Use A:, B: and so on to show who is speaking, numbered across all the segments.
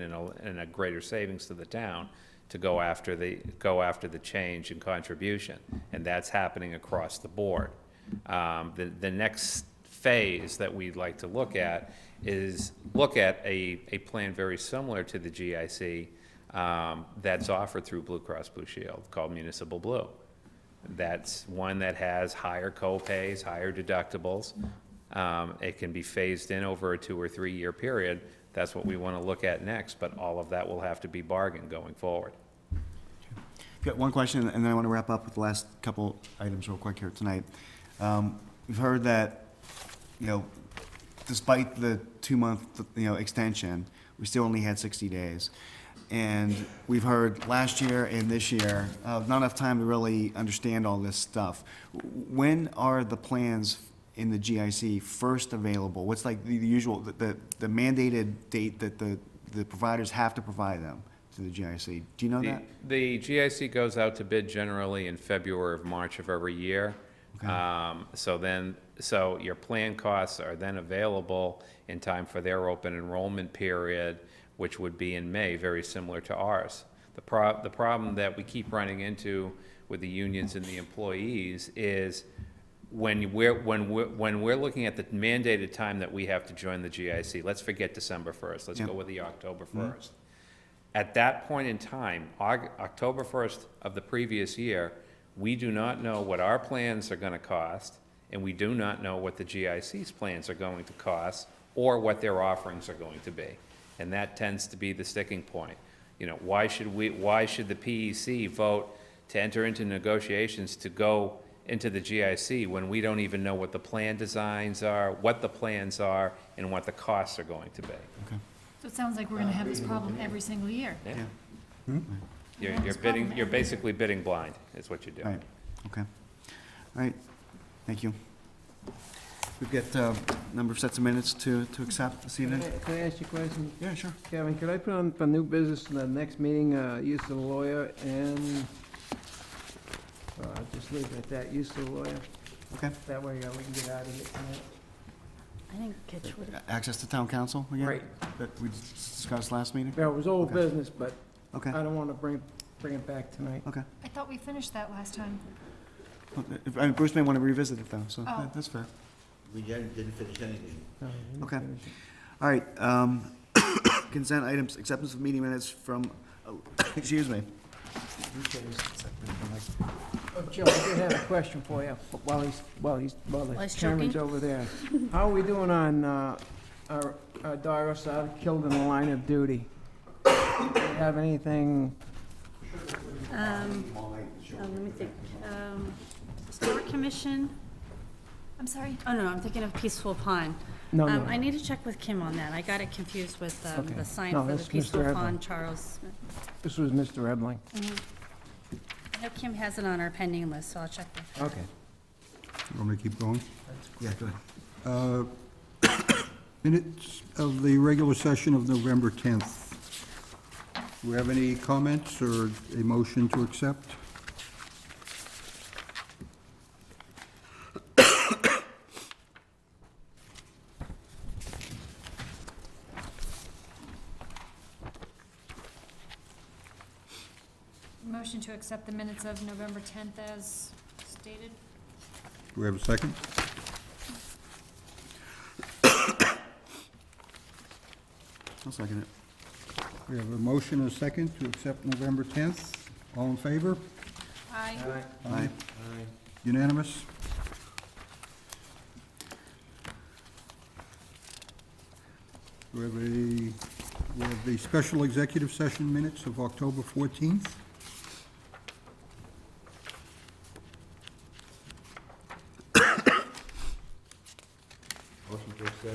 A: and a, and a greater savings to the town to go after the, go after the change in contribution. And that's happening across the board. Um, the, the next phase that we'd like to look at is look at a, a plan very similar to the GIC um, that's offered through Blue Cross Blue Shield called Municipal Blue. That's one that has higher co-pays, higher deductibles. Um, It can be phased in over a two or three-year period. That's what we want to look at next, but all of that will have to be bargained going forward.
B: I've Got one question, and then I want to wrap up with the last couple items real quick here tonight. Um, We've heard that, you know, despite the two-month, you know, extension, we still only had 60 days. And we've heard last year and this year, uh, not enough time to really understand all this stuff. When are the plans in the GIC first available? What's like the the usual, the- the the mandated date that the the providers have to provide them to the GIC? Do you know
A: The
B: that?
A: the GIC goes out to bid generally in February of March of every year. Um, So then, so your plan costs are then available in time for their open enrollment period, which would be in May, very similar to ours. The prob, the problem that we keep running into with the unions and the employees is when we're, when we're, when we're looking at the mandated time that we have to join the GIC, let's forget December first, let's
B: Yeah.
A: go with the October
B: Mm-hmm.
A: first. At that point in time, Aug- October 1st of the previous year, we do not know what our plans are going to cost, and we do not know what the GIC's plans are going to cost, or what their offerings are going to be. And that tends to be the sticking point. You know, why should we, why should the PEC vote to enter into negotiations to go into the GIC when we don't even know what the plan designs are, what the plans are, and what the costs are going to be?
C: So it sounds like we're gonna have this problem every single year.
A: Yeah.
C: Yeah,
A: You're,
C: it's
A: you're bidding,
C: problematic.
A: you're basically bidding blind, is what you're
B: All
A: doing.
B: right, okay. All right, thank you. We've got uh, a number of sets of minutes to, to accept this evening.
D: Can I- can I ask you a question?
B: Yeah, sure.
D: Kevin, could I put on for new business in the next meeting, uh, use of lawyer and, uh, just leave it at that, use of lawyer?
B: Okay.
D: That way uh, we can get out of it. tonight.
E: I think Kitch would have,
B: Access to town council again?
D: Right.
B: That we discussed last meeting?
D: Well, it was old
B: Okay.
D: business, but
B: Okay,
D: I don't want to bring, bring it back tonight.
B: okay.
C: I thought we finished that last time.
B: If- I mean, Bruce may want to revisit it though, so
C: Oh.
B: that- that's fair.
F: We didn't didn't finish anything.
D: No, we didn't
B: Oh, Okay.
D: finish it.
B: All right, um, consent items, acceptance of meeting minutes from, oh, excuse me.
D: Oh, Joe, I did have a question for you, but while he's, while he's, while the
E: While he's
D: camera's
E: choking.
D: over there. How are we doing on, uh, our, our Doris out killed in the line of duty? Do you have anything?
E: um, uh, let me think, um, Historic Commission,
C: I'm sorry.
E: oh no, I'm thinking of Peaceful Pond.
D: No, no.
E: Um, I need to check with Kim on that, I got it confused with, um,
D: Okay.
E: the sign
D: No,
E: for the
D: that's Mr.
E: Peaceful
D: Edlin.
E: Pond, Charles Smith.
D: This was Mr. Ebling.
E: I know Kim has it on our pending list, so I'll check with her.
D: Okay.
G: You Want me to keep going?
F: Yeah, go ahead.
G: Uh, Minutes of the regular session of November 10th. Do we have any comments or a motion to accept?
C: Motion to accept the minutes of November 10th as stated.
G: Do we have a second?
B: I'll second it.
G: We have a motion and a second to accept November 10th. All in favor?
C: Aye.
B: Aye.
G: Unanimous? Do we have a, we have the special executive session minutes of October 14th?
F: Motion to accept.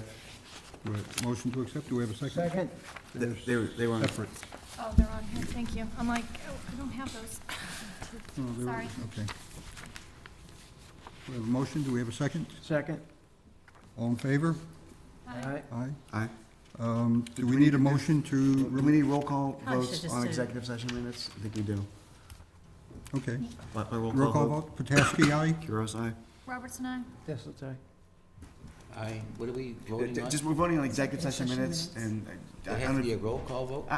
G: Do we have a Motion to accept, do we have a second?
D: Second?
G: There's-
F: They were, they were on.
G: Effort.
C: Oh, they're on here, thank you. I'm like, oh, I don't have those.
G: No, there-
C: Sorry.
G: Okay. We have a motion, do we have a second?
D: Second?
G: All in favor?
D: All right.
G: Aye.
B: Aye.
G: Um, Do we need a motion
B: Do
G: to,
B: we need roll call
E: Probably should
B: votes
E: just
B: on
E: do-
B: executive session minutes? I think we do.
G: okay.
F: My, my roll
G: Roll call
F: call vote.
G: vote, Potaski, aye?
B: Kuros, aye.
C: Robertson, aye.
D: Yes, that's all right.
H: Aye, what are we
B: Uh,
H: voting on?
B: Just, we're voting on executive session
E: Session
B: minutes
E: minutes.
B: and. uh,
H: It
B: I
H: has to
B: don't-
H: be a roll call vote?